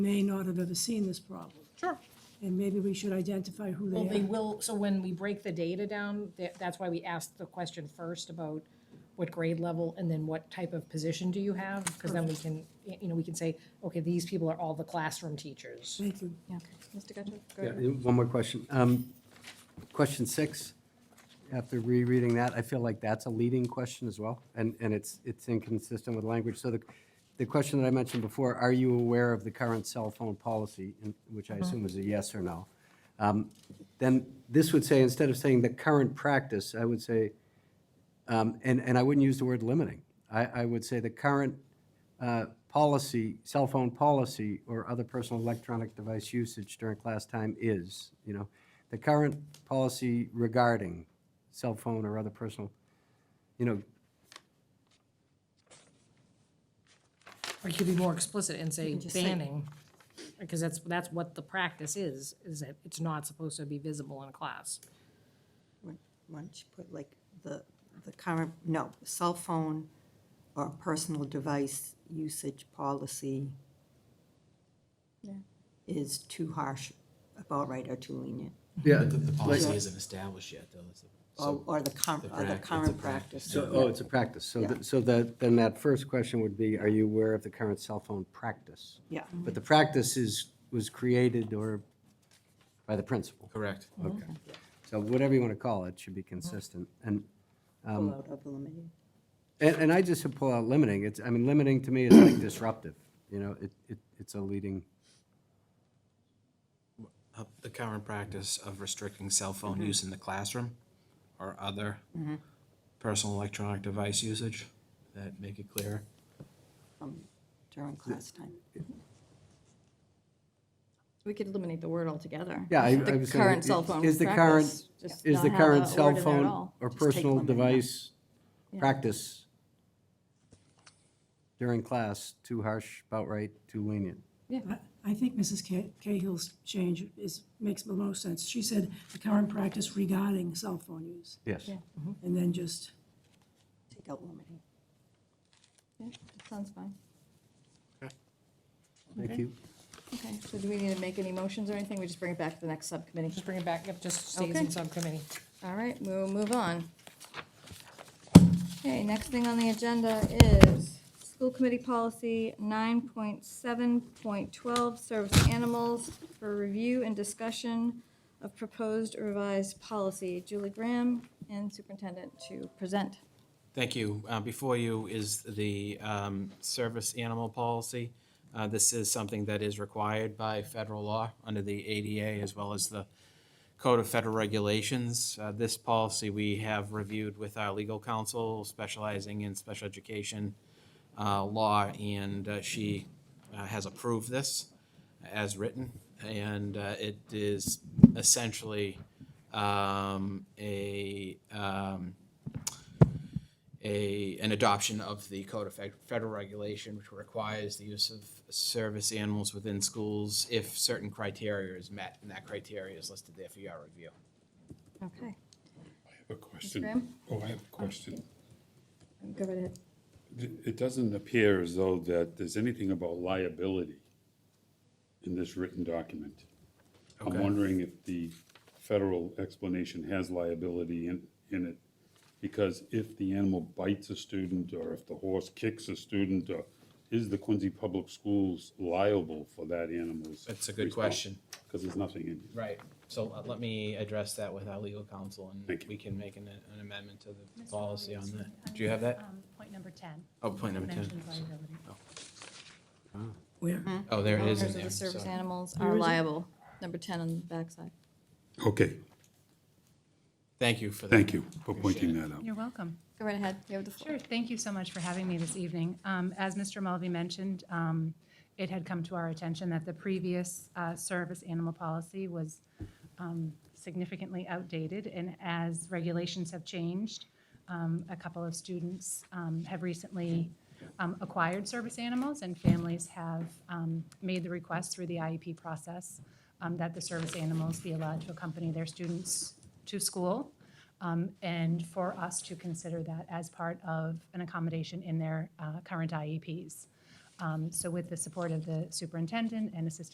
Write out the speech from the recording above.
may not have ever seen this problem. Sure. And maybe we should identify who Well, they they are. will, so when we break the data down, tha- that's why we asked the question first about what grade level and then what type of position do you have? Because then we can, y- you know, we can say, okay, these people are all the classroom teachers. Thank you. Yeah, Mr. Gudrick? go Yeah, ahead. and one more question. Um, Question six, after rereading that, I feel like that's a leading question as well, and, and it's, it's inconsistent with language. So the, the question that I mentioned before, are you aware of the current cell phone policy, in- which I assume is a yes or no? Um, Then this would say, instead of saying the current practice, I would say, um, and, and I wouldn't use the word limiting. I, I would say the current uh, policy, cell phone policy, or other personal electronic device usage during class time is, you know, the current policy regarding cell phone or other personal, you know, Or you could be more explicit and say just say- banning, because that's, that's what the practice is, is that it's not supposed to be visible in class. Why don't you put like the, the current, no, cell phone or personal device usage policy is too harsh, about right, or too lenient, yeah, The, the policy Yeah. isn't established yet, though. It's a- or, so- or the current, the or the prac- it's a current practice. practice. so, oh, it's a practice. So, th- so that, then that first question would be, are you aware of the current cell phone practice? Yeah, But the practice is, was created or by the principal. Correct. Okay. So whatever you want to call it, should be consistent. And um, pull out of eliminate. And, and I just pull out limiting. It's, I mean, limiting to me is like disruptive, you know, it, it, it's a leading, Uh, The current practice of restricting cell phone use in the classroom or other personal electronic device usage, that make it clear. um, during class time. We could eliminate the word altogether. yeah, I, I was The saying. current cell phone Is the practice, current, just is not the have a current word cell in there at phone all. or take personal limiting out. device Yeah. practice during class, too harsh, about right, too lenient? I- I think Mrs. Ca- Cahill's change is, makes the most sense. She said the current practice regarding cell phone use, Yes. Yeah. and then just, Take out limiting. Yeah, that Sounds fine. Thank you. Okay, so do we need to make any motions or anything? We just bring it back to the next subcommittee? Just bring it back, yep, just stays in Okay. subcommittee. All right, we'll move on. Okay, next thing on the agenda is School Committee Policy 9.7.12, Service Animals for Review and Discussion of Proposed Revised Policy. Julie Graham and Superintendent to present. Thank you. Uh, Before you is the um, service animal policy. Uh, This is something that is required by federal law under the ADA as well as the Code of Federal Regulations. Uh, This policy we have reviewed with our legal counsel specializing in special education uh, law, and uh, she uh, has approved this as written. And uh, it is essentially um, a, um, a, an adoption of the Code of Fed- Federal Regulation, which requires the use of service animals within schools if certain criteria is met, and that criteria is listed there for your review. Okay, A question. Graham? Oh, I have a question. go right ahead. It it doesn't appear as though that there's anything about liability in this written document. I'm wondering if the federal explanation has liability in, in it. Because if the animal bites a student, or if the horse kicks a student, or is the Quincy Public Schools liable for that animal's? That's a good question. Because there's nothing in it. Right, so uh, let me address that with our legal counsel, and Thank you. we can make an an amendment to the policy on that. Do you have that? Um, Point number 10. Oh, point number ten. mentions liability. where? Oh, there it is in Owners of there. the service sorry. animals are liable, number 10 on the backside. Okay, Thank you for that. thank you for pointing that out. You're welcome. Go right ahead, you have the floor. Sure, thank you so much for having me this evening. Um, As Mr. Mulvey mentioned, um, it had come to our attention that the previous uh, service animal policy was um, significantly outdated, and as regulations have changed, um, a couple of students um, have recently um, acquired service animals, and families have um, made the request through the IEP process um, that the service animals be allowed to accompany their students to school, um, and for E us to consider that as part of an accommodation in their uh, current IEPs. Um, So with the support of the superintendent and assistant